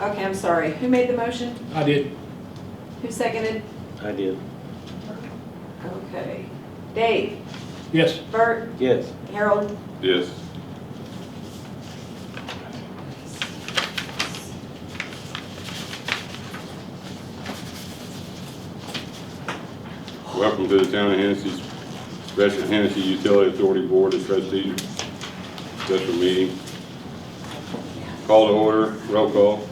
Okay, I'm sorry. Who made the motion? I did. Who seconded? I did. Okay. Dave, Yes. Bert, Yes. Harold, Yes. Welcome to the Town of Hennessy's Special Hennessy Utility Authority Board of Trustees special meeting. Call to order, roll call.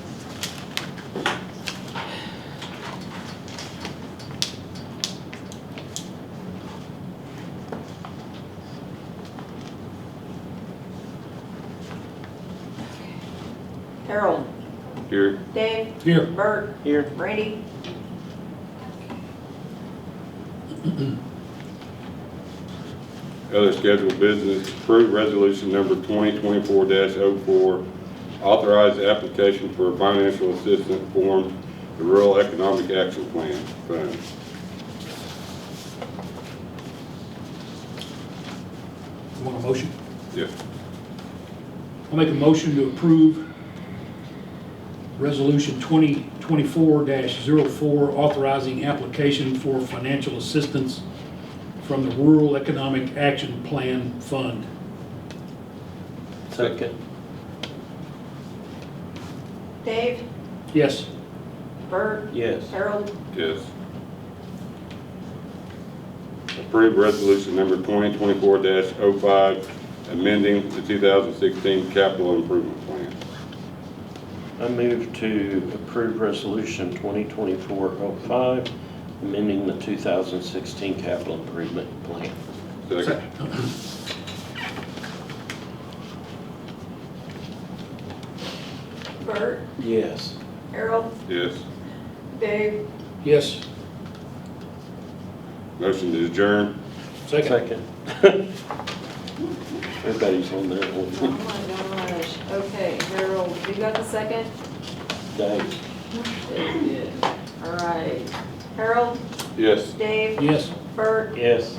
Harold, Here, Dave, Here. Bert, Here. Randy. other scheduled business, approve resolution number 2024-04, authorize application for financial assistance form, the Rural Economic Action Plan Fund. Want a motion? Yes. I'll make a motion to approve Resolution 2024-04, authorizing application for financial assistance from the Rural Economic Action Plan Fund. Second. Dave, Yes. Bert, Yes. Harold, Yes. Approve resolution number 2024-05, amending the 2016 capital improvement plan. I move to approve Resolution 2024-05, amending the 2016 capital improvement plan. Second. Bert, Yes. Harold, Yes. Dave, Yes. Motion to adjourn. Second. Second. Everybody's on their oh own my gosh. Okay, Harold, you got the second? day. All right. Harold, Yes. Dave, Yes. Bert, Yes.